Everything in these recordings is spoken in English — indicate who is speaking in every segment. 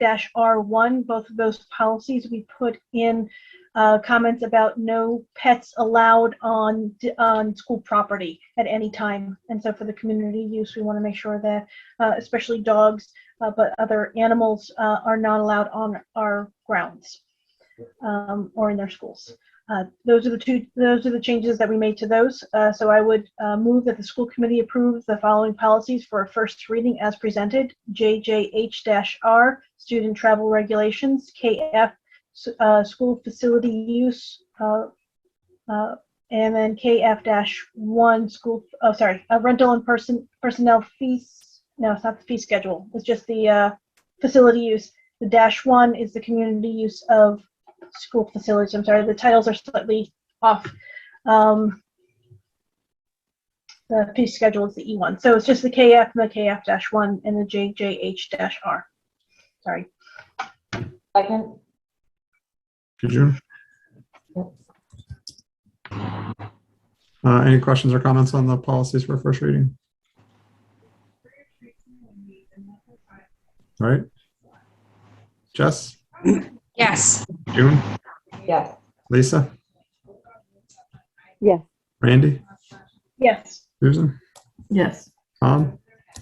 Speaker 1: dash R one, both of those policies, we put in uh, comments about no pets allowed on, on school property at any time. And so for the community use, we want to make sure that, uh, especially dogs, uh, but other animals uh, are not allowed on our grounds um, or in their schools. Uh, Those are the two, those are the changes that we made to those. Uh, So I would uh, move that the school committee approves the following policies for a first reading as presented. JJH-R, student travel regulations, KF, s- uh, school facility use, uh, uh, and then KF-1, school, oh, sorry, uh, rental and person, personnel fees. No, it's not the fee schedule. It's just the uh, facility use. The dash one is the community use of school facilities. I'm sorry, the titles are slightly off. Um, the fee schedule is the E one, so it's just the KF, the KF dash one, and the JJH dash R. Sorry.
Speaker 2: Second?
Speaker 3: Did you? Uh, any questions or comments on the policies for first reading? All right. Jess,
Speaker 4: Yes.
Speaker 3: June,
Speaker 2: Yes.
Speaker 3: Lisa?
Speaker 5: Yes.
Speaker 3: Randy,
Speaker 1: Yes.
Speaker 3: Susan,
Speaker 2: Yes.
Speaker 3: Tom,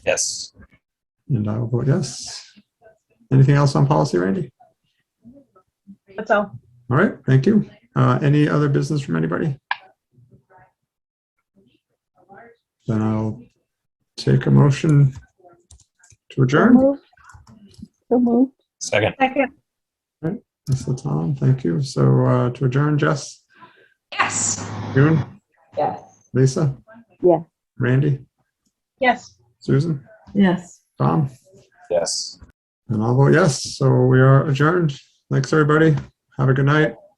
Speaker 6: Yes.
Speaker 3: and I will vote yes. Anything else on policy, Randy?
Speaker 1: That's all.
Speaker 3: All right, thank you. Uh, any other business from anybody? Then I'll take a motion to
Speaker 5: So
Speaker 3: adjourn.
Speaker 5: moved. So moved.
Speaker 6: Second.
Speaker 1: Second.
Speaker 3: Mr. Tom, thank you. So, uh, to adjourn, Jess,
Speaker 4: Yes.
Speaker 3: June,
Speaker 2: Yes.
Speaker 3: Lisa?
Speaker 5: Yeah.
Speaker 3: Randy,
Speaker 1: Yes.
Speaker 3: Susan,
Speaker 2: Yes.
Speaker 3: Tom,
Speaker 6: Yes.
Speaker 3: and I'll vote yes. So we are adjourned. Thanks, everybody. Have a good night.